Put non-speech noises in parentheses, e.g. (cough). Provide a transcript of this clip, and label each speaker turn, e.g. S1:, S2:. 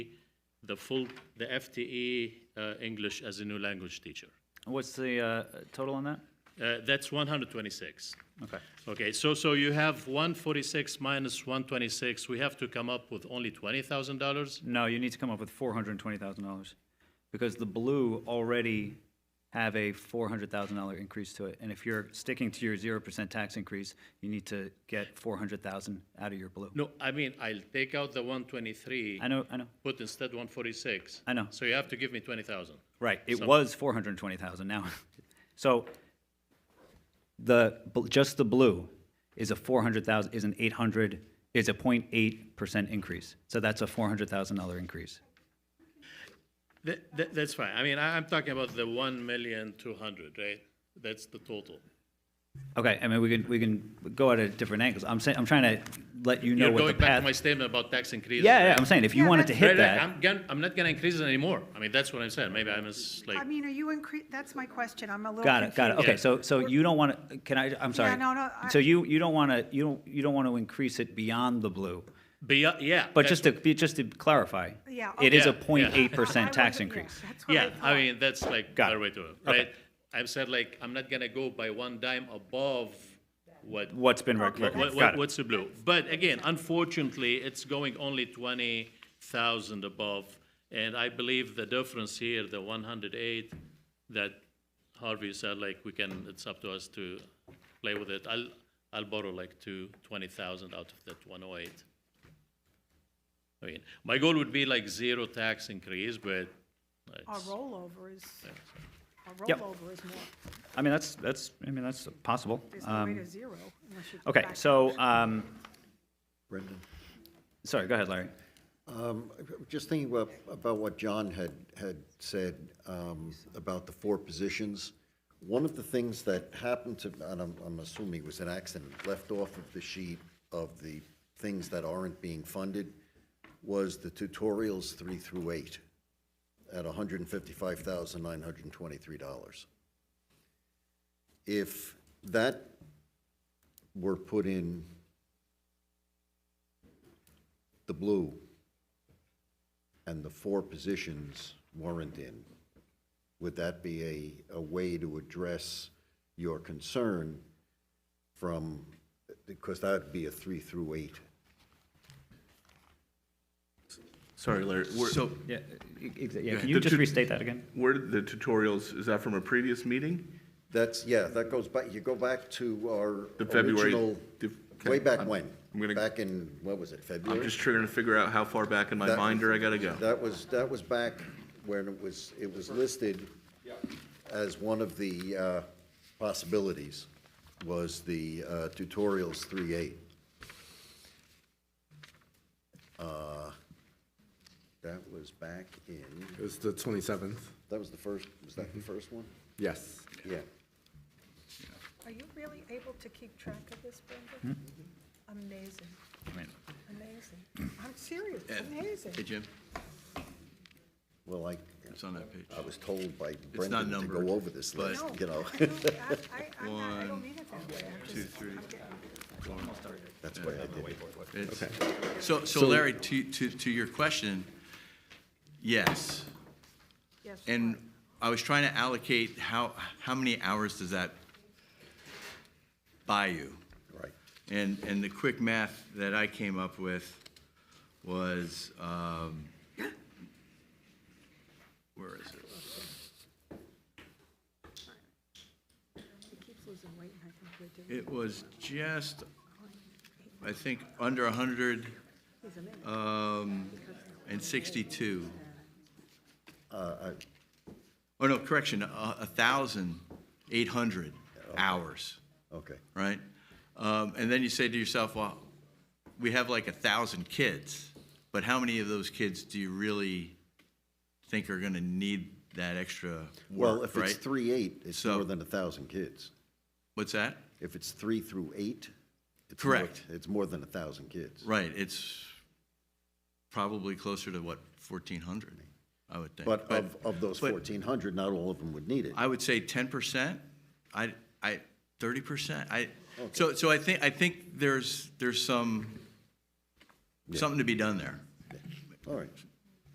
S1: the full, the FTE uh, English as a new language teacher.
S2: What's the uh, total on that?
S1: Uh, That's 126.
S2: Okay.
S1: Okay, so, so you have 146 minus 126, we have to come up with only $20,000?
S2: No, you need to come up with four hundred and twenty thousand dollars, because the blue already have a four hundred thousand dollar increase to it. And if you're sticking to your zero percent tax increase, you need to get four hundred thousand out of your blue.
S1: No, I mean, I'll take out the 123,
S2: I know, I know,
S1: put instead 146.
S2: I know.
S1: So you have to give me 20,000.
S2: Right, it was four hundred and twenty thousand now. (laughs) So the, bl- just the blue is a four hundred thousand, is an eight hundred, is a point eight percent increase. So that's a four hundred thousand dollar increase.
S1: That, that, that's fine, I mean, I, I'm talking about the 1,200,000, right? That's the total.
S2: Okay, I mean, we can, we can go at it different angles. I'm saying, I'm trying to let you know
S1: You're
S2: what the
S1: going back to
S2: path.
S1: my statement about tax increases.
S2: Yeah, yeah,
S1: right?
S2: I'm saying, if you
S3: Yeah,
S2: wanted to
S3: that's-
S2: hit
S1: Right, right,
S2: that,
S1: I'm, gon- I'm not gonna increase it anymore, I mean, that's what I'm saying, maybe I'm just like.
S3: I mean, are you incre, that's my question, I'm a little
S2: got it,
S3: confused.
S2: got it. Okay,
S1: Yeah.
S2: so, so you don't want to, can I, I'm sorry.
S3: no, no, I-
S2: So you, you don't want to, you don't, you don't want to increase it beyond the blue.
S1: Beyo- uh, yeah.
S2: But
S1: that's-
S2: just to, be- just to clarify.
S3: Yeah,
S2: It is a
S1: okay. Yeah,
S2: point eight
S3: No, I
S2: percent tax
S3: wasn't- yeah,
S2: increase.
S3: that's what
S1: Yeah, I
S3: thought.
S1: mean, that's like
S2: Got
S1: better
S2: it.
S1: way to,
S2: Okay.
S1: right? I've said like, I'm not gonna go by one dime above what, what-
S2: What's been
S3: Okay,
S2: recommended,
S3: that's-
S2: got
S1: what,
S2: it.
S1: what's the blue? But again, unfortunately, it's going only twenty thousand above. And I believe the difference here, the one hundred eight, that Harvey said, like, we can, it's up to us to play with it. I'll, I'll borrow like two, twenty thousand out of that one oh eight. I mean, my goal would be like zero tax increase, but
S3: A
S1: it's-
S3: rollover is, a
S2: Yep.
S3: rollover is more,
S2: I mean, that's, that's, I mean, that's possible.
S3: is
S2: Um,
S3: the rate of zero. unless you go
S2: Okay,
S3: back.
S2: so, um,
S4: Brendan.
S2: sorry, go ahead, Larry.
S4: Just thinking about, about what John had, had said um, about the four positions. One of the things that happened to, and I'm, I'm assuming it was an accident, left off of the sheet of the things that aren't being funded was the tutorials three through eight at $155,923. If that were put in the blue, and the four positions weren't in, would that be a, a way to address your concern from, because that'd be a three through eight?
S5: Sorry, Larry, where,
S6: So,
S2: Yeah, e- exa- yeah, can
S5: ahead.
S2: you just
S5: Tut-
S2: restate that again?
S5: where did the tutorials, is that from a previous meeting?
S4: That's, yeah, that goes back, you go back to our
S5: The February-
S4: original,
S5: the-
S4: way back
S5: I'm-
S4: when?
S5: I'm gonna-
S4: Back in, what was it,
S5: I'm
S4: February?
S5: just trying to figure out how far back in my
S4: That-
S5: binder I gotta go.
S4: That was, that was back when it was, it was listed as one of the uh, possibilities, was the uh, tutorials three eight. Uh, That was back in,
S6: it was the 27th.
S4: that was the first, was that the
S7: Mm-hmm.
S4: first one?
S6: Yes.
S4: Yeah.
S3: Are you really able to keep track of this, Brenda? Amazing,
S2: Hmm? I mean,
S3: amazing. I'm serious, amazing.
S7: Hey, Jim,
S4: Well, I,
S7: it's on that page.
S4: I was told by Brendan to
S7: numbered,
S4: go over this
S7: but-
S4: list, you know,
S3: No, I don't- I, I, I'm not- I don't mean it that way. I'm
S7: Two,
S3: just-
S7: three.
S3: I'm getting-
S4: that's why I did it.
S7: It's- So, so Larry, to, to, to your question, yes.
S3: Yes.
S7: And
S3: what?
S7: I was trying to allocate how, how many hours does that buy you?
S4: Right.
S7: And, and the quick math that I came up with was, um, where is it?
S3: He keeps losing weight, and I think we're doing,
S7: It was just, I think, under 100
S3: he's amazing.
S7: and 62.
S4: Uh,
S7: Oh, no, correction, a 1,800 hours,
S4: I- Okay,
S7: right? Um, And then you say to yourself, well, we have like a 1,000 kids, but how many of those kids do you really think are going to need that extra
S4: well,
S7: work,
S4: if it's
S7: right?
S4: three eight, it's
S7: So-
S4: more than a thousand kids.
S7: What's that?
S4: If it's three through eight? it's more-
S7: Correct.
S4: It's more than a thousand kids.
S7: Right, it's probably closer to what, 1,400, I would think.
S4: But of, of those
S7: but-
S4: fourteen hundred, not all of them would need it.
S7: I would say ten percent. I, I, thirty percent. I, so, so I think, I think there's, there's some, something to be done there.
S4: All right,